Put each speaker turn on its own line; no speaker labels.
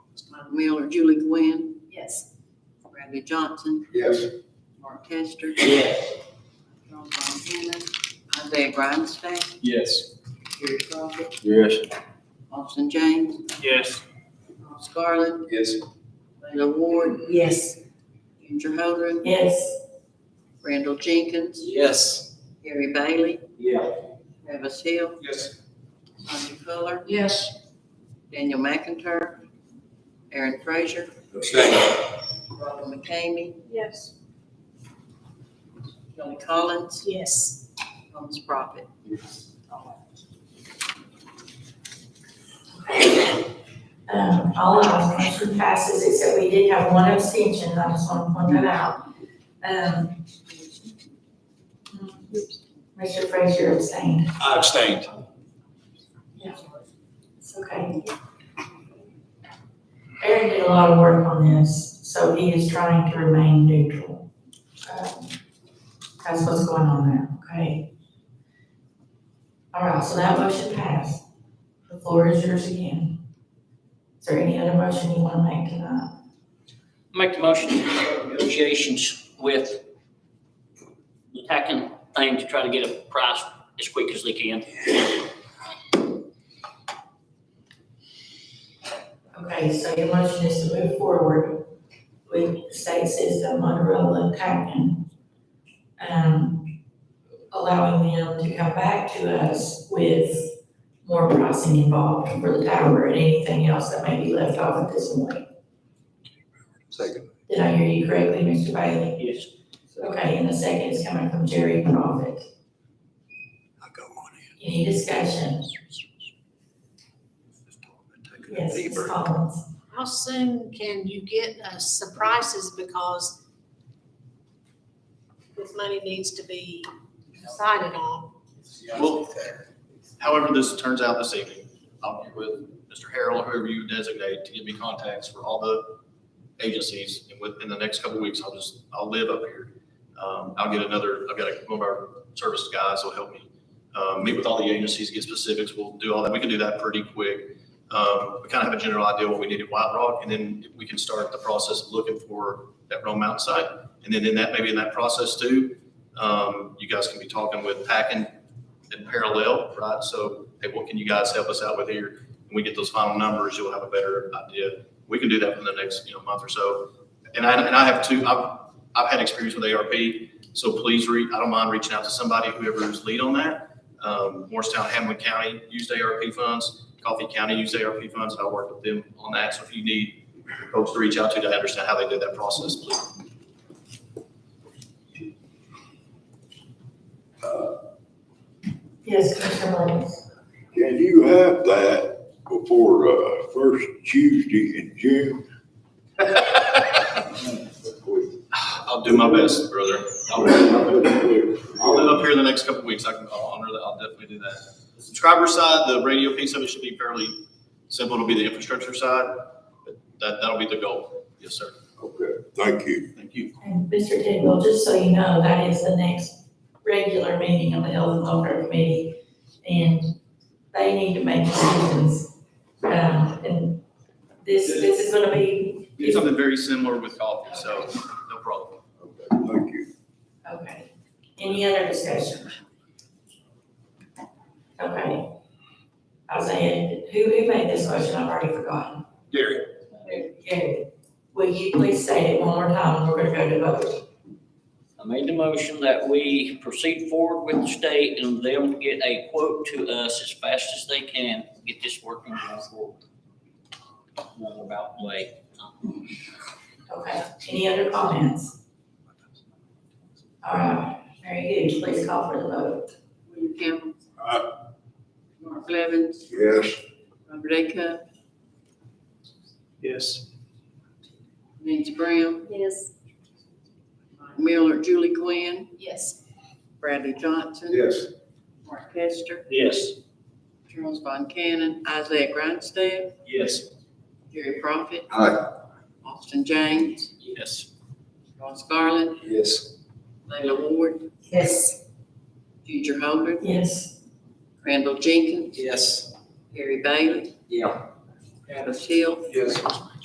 Myla Miller, Julie Gwynn,
Yes.
Bradley Johnson,
Yes.
Mark Tester,
Yes.
John Von Cannon, Isaiah Grinstein,
Yes.
Gary Crawford,
Yes.
Austin James,
Yes.
Ross Garland,
Yes.
Layla Ward,
Yes.
Ginger Holdren,
Yes.
Randall Jenkins,
Yes.
Gary Bailey,
Yeah.
Travis Hill,
Yes.
Sonia Fuller,
Yes.
Daniel McIntyre, Aaron Frazier,
Abstain.
Robert McCamey,
Yes.
Kelly Collins,
Yes.
Thomas Prophet.
Um, all of our motion passes, except we did have one abstention, I just want to point that out. Um, Mr. Frazier abstained.
I abstained.
It's okay. Aaron did a lot of work on this, so he is trying to remain neutral. Um, That's what's going on there, okay? All right, so that motion passed. The floor is yours again. Is there any other motion you want to make tonight?
Make the motion to start negotiations with the tacking thing to try to get a price as quick as they can.
Okay, so your motion is to move forward with the state system Motorola Packman. Um, allowing them to come back to us with more pricing involved for the tower and anything else that may be left off at this point.
Second.
Did I hear you correctly, Mr. Bailey?
Yes.
Okay, and the second is coming from Jerry Prophet.
I go on in.
Any discussion?
Taking a
Yes,
deep
Ms.
breath.
Collins.
How soon can you get us the prices because this money needs to be decided on?
Well, however this turns out this evening, I'll be with Mr. Harrell, whoever you designate, to give me contacts for all the agencies. And within the next couple of weeks, I'll just, I'll live up here. Um, I'll get another, I've got a- one of our service guys will help me, um, meet with all the agencies, get specifics. We'll do all that. We can do that pretty quick. Um, we kind of have a general idea what we need at White Rock, and then we can start the process of looking for that Rome Mountain site. And then in that, maybe in that process too, um, you guys can be talking with Packin in parallel, right? So, hey, what can you guys help us out with here? When we get those final numbers, you'll have a better idea. We can do that in the next, you know, month or so. And I, and I have two, I've, I've had experience with ARP, so please read, I don't mind reaching out to somebody, whoever's lead on that. Um, Morristown, Hamlin County used ARP funds, Coffee County used ARP funds, I worked with them on that. So if you need folks to reach out to to understand how they did that process, please.
Yes, Commissioner Williams.
Can you have that before, uh, first Tuesday in June?
I'll do my best, brother. I'll do my best. I'll live up here in the next couple of weeks. I can, I'll honor that. I'll definitely do that. The subscriber side, the radio piece of it should be fairly simple. It'll be the infrastructure side. but That, that'll be the goal. Yes, sir.
Okay, thank you.
Thank you.
And Mr. Tidwell, just so you know, that is the next regular meeting of the Health and Welfare Committee. And they need to make decisions. Um, and this, this is gonna be,
It's something very similar with coffee, so no problem.
Okay, Thank you.
okay. Any other discussion? Okay. I was saying, who, who made this motion? I've already forgotten.
Gary.
Gary, will you please say it one more time? and We're gonna go to vote.
I made the motion that we proceed forward with the state and them get a quote to us as fast as they can, get this working going forward. Roundabout way.
Okay. Any other comments? All right, very good. Please call for the vote.
William Campbell.
Aye.
Mark Levins,
Yes,
Robert A. Cup,
Yes.
Nancy Brown,
Yes.
Myla Miller, Julie Gwynn,
Yes.
Bradley Johnson.
yes.
Mark Tester,
Yes.
Charles Von Cannon, Isaiah Grinstead,
Yes.
Gary Prophet.
Aye.
Austin James,
Yes.
Ross Garland,
Yes.
Layla Ward,
Yes.
Ginger Holdren,
Yes,
Randall Jenkins,
Yes.
Gary Bailey.
Yeah.
Travis Hill,
Yes.